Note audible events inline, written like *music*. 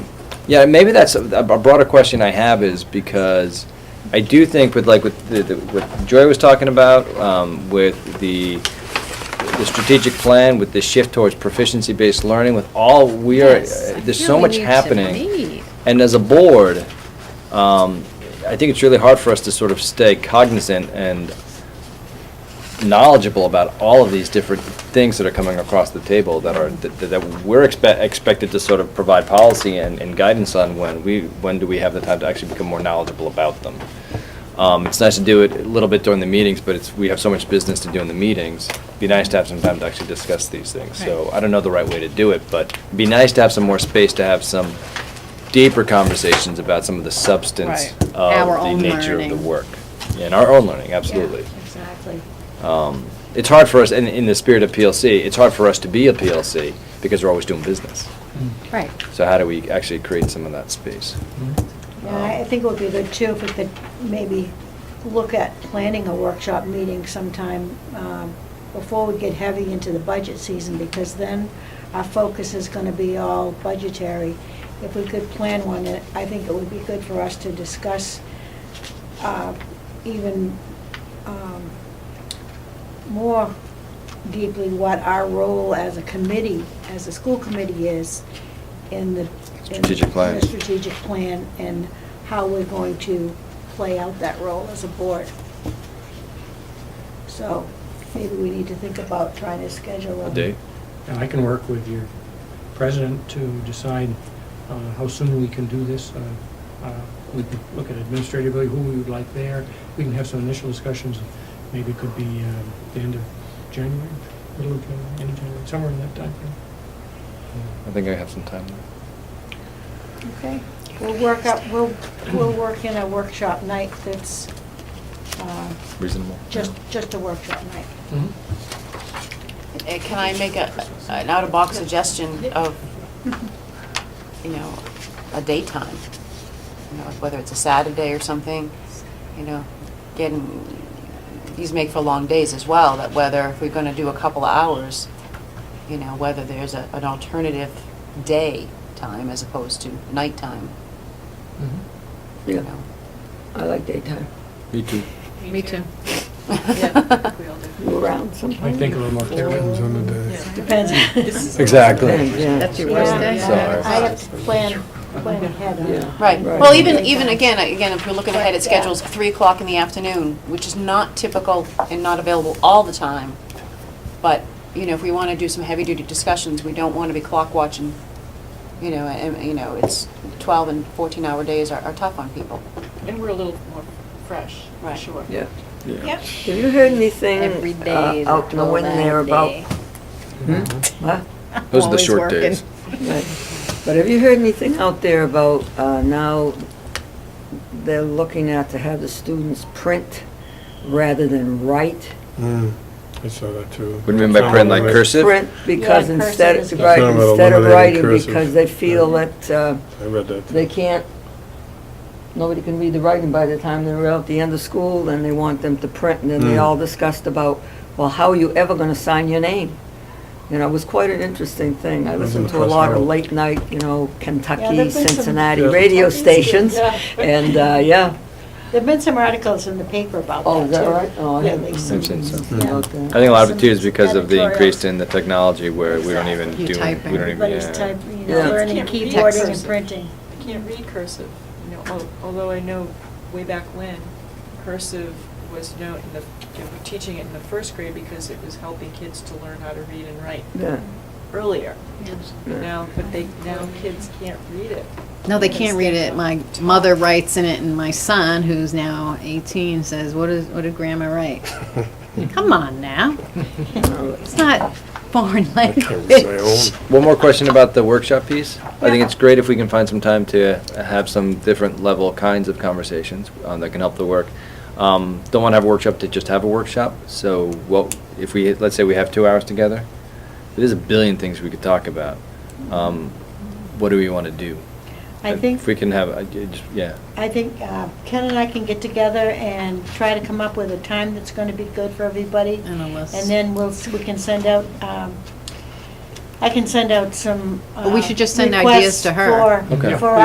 Yeah, maybe that's, a a broader question I have is because I do think with like, with, the- the- what Joy was talking about, um, with the, the strategic plan, with the shift towards proficiency-based learning, with all, we are, uh, Yes, I there's feel so we much need to happening. meet. And as a board, um, I think it's really hard for us to sort of stay cognizant and knowledgeable about all of these different things that are coming across the table that are, that, that we're expe- expected to sort of provide policy and, and guidance on when we, when do we have the time to actually become more knowledgeable about them. Um, it's nice to do it a little bit during the meetings, but it's, we have so much business to do in the meetings. Be nice to have some time to actually discuss these things. So Right. I don't know the right way to do it, but it'd be nice to have some more space to have some deeper conversations about some of the substance Right. of Our the own nature of the learning. work. And our own learning, absolutely. Exactly. Um, It's hard for us, in, in the spirit of PLC, it's hard for us to be a PLC because we're always doing business. Mm-hmm. Right. So how do we actually create some of that space? Yeah, I- Um, I think it would be good too if we could maybe look at planning a workshop meeting sometime um, before we get heavy into the budget season, because then our focus is gonna be all budgetary. If we could plan one, then I think it would be good for us to discuss uh, even um, more deeply what our role as a committee, as a school committee is in the. in Strategic plan. the strategic plan and how we're going to play out that role as a board. So maybe we need to think about trying to schedule. A date? And I can work with your president to decide uh, how soon we can do this. Uh, uh, We can look at administratively, who we would like there. We can have some initial discussions. Maybe it could be um, the end of January, middle of January, end of January, somewhere in that timeframe. I think I have some time. Okay, we'll work up, we'll, we'll work in a workshop night that's uh, Reasonable? just, just a workshop night. Mhm. Uh, Can I make a, an out-of-box suggestion of, you know, a daytime? You know, whether it's a Saturday or something, you know, getting, these make for long days as well, that whether, if we're gonna do a couple of hours, you know, whether there's a, an alternative day time as opposed to nighttime, Mhm. you Yeah, know? I like daytime. Me too. Me too. *laughs* Go around I sometime. think a little more Depends clearly. on the day. Depends. Exactly. Yeah, That's your worst day. Yeah, Sorry. I have to plan, plan ahead on it. Yeah. Right, Right. well, even, even again, again, if you're looking ahead at Right, yeah. schedules, three o'clock in the afternoon, which is not typical and not available all the time. But, you know, if we wanna do some heavy-duty discussions, we don't wanna be clock watching, you know, and, you know, it's twelve and fourteen-hour days are, are tough on people. And we're a little more fresh, Right. sure. Yeah. Yep. Have you heard anything Every uh, day is a out in the wind there full-on about? day. Mhm. Huh? Those are the Always short working. days. Right. But have you heard anything out there about uh, now they're looking at to have the students print rather than write? Mm, I saw that too. What do you mean by print, like curse? cursive? Print because Yeah, cursive instead, is- right, Something about instead of eliminating writing cursive. because they feel that uh, I read that. too. they can't, nobody can read the writing by the time they're out the end of school, then they want them to print, and then they Mm. all discussed about, well, how are you ever gonna sign your name? You know, it was quite an interesting thing. I It was in listened the to a press lot of herald. late night, you know, Yeah, there've Kentucky, been some- Cincinnati Yeah. radio Kentucky schools, stations, yeah. and, uh, yeah. There've been some articles in the paper about that too. Oh, is that right? Oh, I Yeah, haven't they- I've seen some. Hmm. seen about that. I think a lot of it too is Some because of the increase editorials. in the technology where we don't even You do, we don't type in. even, Everybody's yeah. typing, you Yeah. know, learning Can't read keyboarding and text. printing. I can't read cursive, you know, al- although I know way back when, cursive was, you know, in the, they were teaching it in the first grade because it was helping kids to learn how to read and write Yeah. earlier. Yeah. Now, but they, now kids can't read it. No, they can't read it. My mother writes in it, and my son, who's now 18, says, "What is? What did Grandma write?" *laughs* Come on now, it's not foreign I can't read my language. own. *laughs* One more question about the workshop piece. I think it's great if we can find some time to have some different level kinds of conversations um, that can help the work. Um, Don't want to have a workshop to just have a workshop, so what, if we, let's say we have two hours together, there's a billion things we could talk about. Um, What do we want to do? I think- If we can have, I- I just- yeah. I think uh, Ken and I can get together and try to come up with a time that's going to be good for everybody. And a list. And then we'll, s- we can send out, um, I can send out some. But we uh, should just send ideas requests to her. for- Okay. For